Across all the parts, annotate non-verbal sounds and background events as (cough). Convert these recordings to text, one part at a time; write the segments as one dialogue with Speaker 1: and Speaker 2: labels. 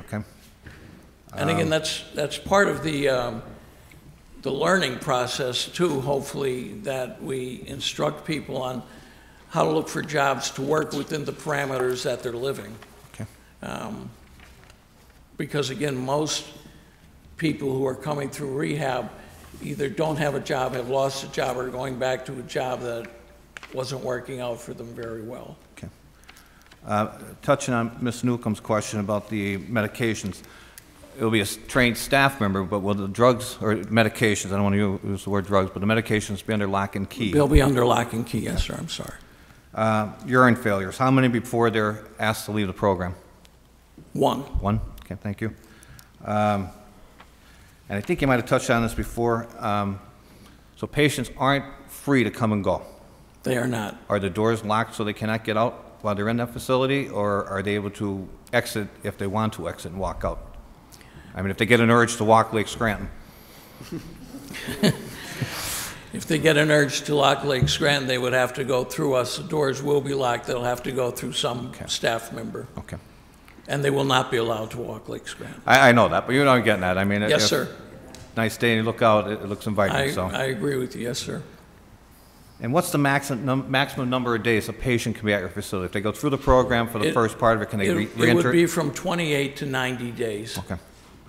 Speaker 1: Okay?
Speaker 2: And again, that's, that's part of the, um, the learning process too, hopefully, that we instruct people on how to look for jobs to work within the parameters that they're living.
Speaker 1: Okay.
Speaker 2: Because again, most people who are coming through rehab either don't have a job, have lost a job, or are going back to a job that wasn't working out for them very well.
Speaker 1: Okay. Uh, Touching on Ms. Newcomb's question about the medications, it'll be a s- trained staff member, but will the drugs, or medications, I don't want to use the word drugs, but the medications be under lock and key?
Speaker 2: They'll be under lock and key, yes, sir, I'm sorry.
Speaker 1: Uh, Urine failures, how many before they're asked to leave the program?
Speaker 2: One,
Speaker 1: One? Okay, thank you. Um, And I think you might have touched on this before, um, so patients aren't free to come and go.
Speaker 2: they are not.
Speaker 1: Are the doors locked so they cannot get out while they're in that facility, or are they able to exit if they want to exit and walk out? I mean, if they get an urge to walk Lake Scranton.
Speaker 2: If they get an urge to lock Lake Scranton, they would have to go through us. The doors will be locked. They'll have to go through some staff member,
Speaker 1: Okay.
Speaker 2: and they will not be allowed to walk Lake Scranton.
Speaker 1: I, I know that, but you know I'm getting at. I mean,
Speaker 2: Yes,
Speaker 1: if-
Speaker 2: sir.
Speaker 1: Nice day, and you look out, it it looks
Speaker 2: I,
Speaker 1: inviting, so.
Speaker 2: I agree with you, yes, sir.
Speaker 1: And what's the maximum, num- maximum number of days a patient can be at your facility? If they go through the program for the
Speaker 2: It-
Speaker 1: first part of it, can they re-
Speaker 2: It it
Speaker 1: reenter?
Speaker 2: would be from 28 to 90 days.
Speaker 1: Okay.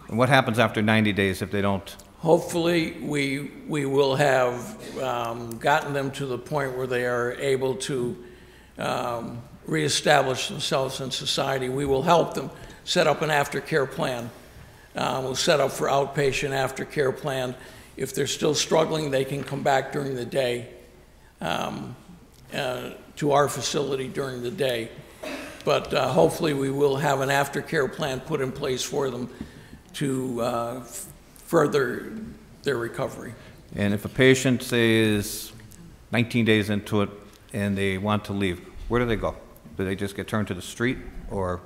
Speaker 1: And what happens after 90 days if they don't?
Speaker 2: Hopefully, we, we will have um, gotten them to the point where they are able to um, reestablish themselves in society. We will help them set up an aftercare plan. Uh, We'll set up for outpatient aftercare plan. If they're still struggling, they can come back during the day um, uh, to our facility during the day. But uh, hopefully, we will have an aftercare plan put in place for them to uh, f- further their recovery.
Speaker 1: And if a patient, say, is 19 days into it and they want to leave, where do they go? Do they just get turned to the street? Or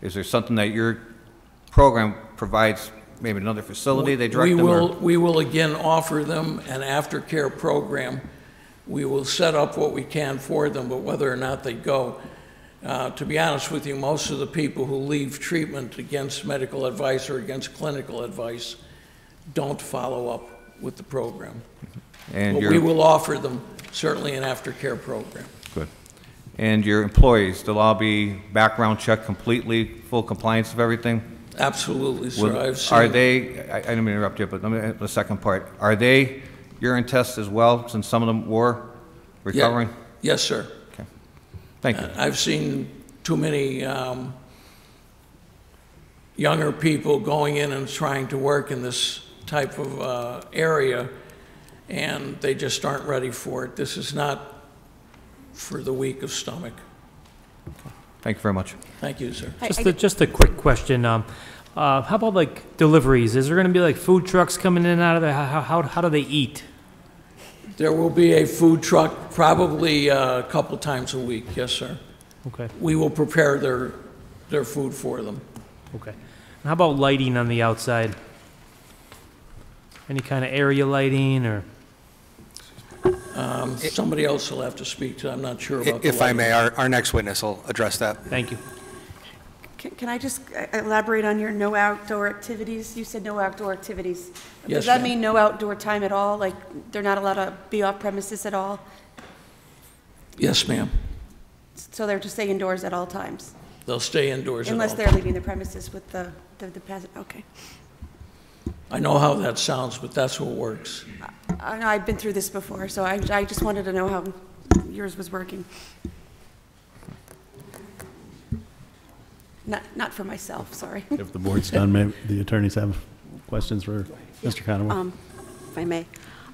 Speaker 1: is there something that your program provides, maybe another facility they direct
Speaker 2: We
Speaker 1: them? or-
Speaker 2: will, we will again offer them an aftercare program. We will set up what we can for them, but whether or not they go, uh, to be honest with you, most of the people who leave treatment against medical advice or against clinical advice don't follow up with the program.
Speaker 1: And
Speaker 2: But we
Speaker 1: your,
Speaker 2: will offer them certainly an aftercare program.
Speaker 1: good. And your employees, they'll all be background checked completely, full compliance of everything?
Speaker 2: Absolutely,
Speaker 1: Will-
Speaker 2: sir. I've seen.
Speaker 1: Are they, I I didn't mean to interrupt you, but let me, the second part, are they urine tests as well, since some of them were
Speaker 2: Yeah.
Speaker 1: recovering?
Speaker 2: Yes, sir.
Speaker 1: Thank you.
Speaker 2: I've seen too many um, younger people going in and trying to work in this type of uh, area, and they just aren't ready for it. This is not for the weak of stomach.
Speaker 1: Thank you very much.
Speaker 2: Thank you, sir.
Speaker 3: I- I
Speaker 4: Just a,
Speaker 3: get-
Speaker 4: just a quick question. Um, uh, how about like deliveries? Is there going to be like food trucks coming in and out of there? How, how, how do they eat?
Speaker 2: There will be a food truck probably uh, a couple times a week. Yes, sir.
Speaker 4: Okay,
Speaker 2: We will prepare their, their food for them.
Speaker 4: okay. And how about lighting on the outside? Any kind of area lighting or?
Speaker 2: Um, Somebody else will have to speak to, I'm not sure about the
Speaker 5: If I
Speaker 2: lighting.
Speaker 5: may, our, our next witness will address that.
Speaker 4: Thank you.
Speaker 3: Can can I just uh, elaborate on your no outdoor activities? You said no outdoor activities.
Speaker 2: Yes,
Speaker 3: Does that
Speaker 2: ma'am.
Speaker 3: mean no outdoor time at all? Like, they're not allowed to be off premises at all?
Speaker 2: Yes, ma'am.
Speaker 3: So they're to stay indoors at all times?
Speaker 2: They'll stay indoors at all
Speaker 3: Unless they're leaving the premises with the, the the pas- okay.
Speaker 2: I know how that sounds, but that's what works.
Speaker 3: I know, I've been through this before, so I, I just wanted to know how yours was working. Not, not for myself, sorry. (laughs)
Speaker 6: If the board's done, may the attorneys have questions for Mr. Conaway?
Speaker 7: Um, If I may.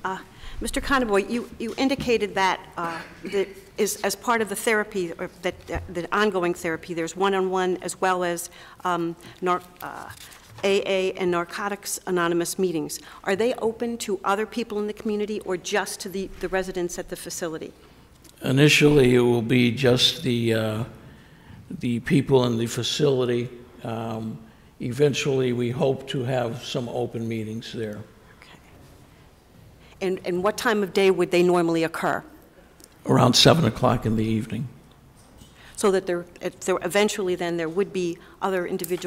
Speaker 7: Uh, Mr. Conboy, you you indicated that uh, that is as part of the therapy, or that uh, the ongoing therapy, there's one-on-one as well as um, nar- uh, AA and Narcotics Anonymous meetings. Are they open to other people in the community or just to the the residents at the facility?
Speaker 2: Initially, it will be just the, uh, the people in the facility. Um, Eventually, we hope to have some open meetings there.
Speaker 7: Okay. And and what time of day would they normally occur?
Speaker 2: Around 7 o'clock in the evening.
Speaker 7: So that there, if there- eventually then, there would be other individuals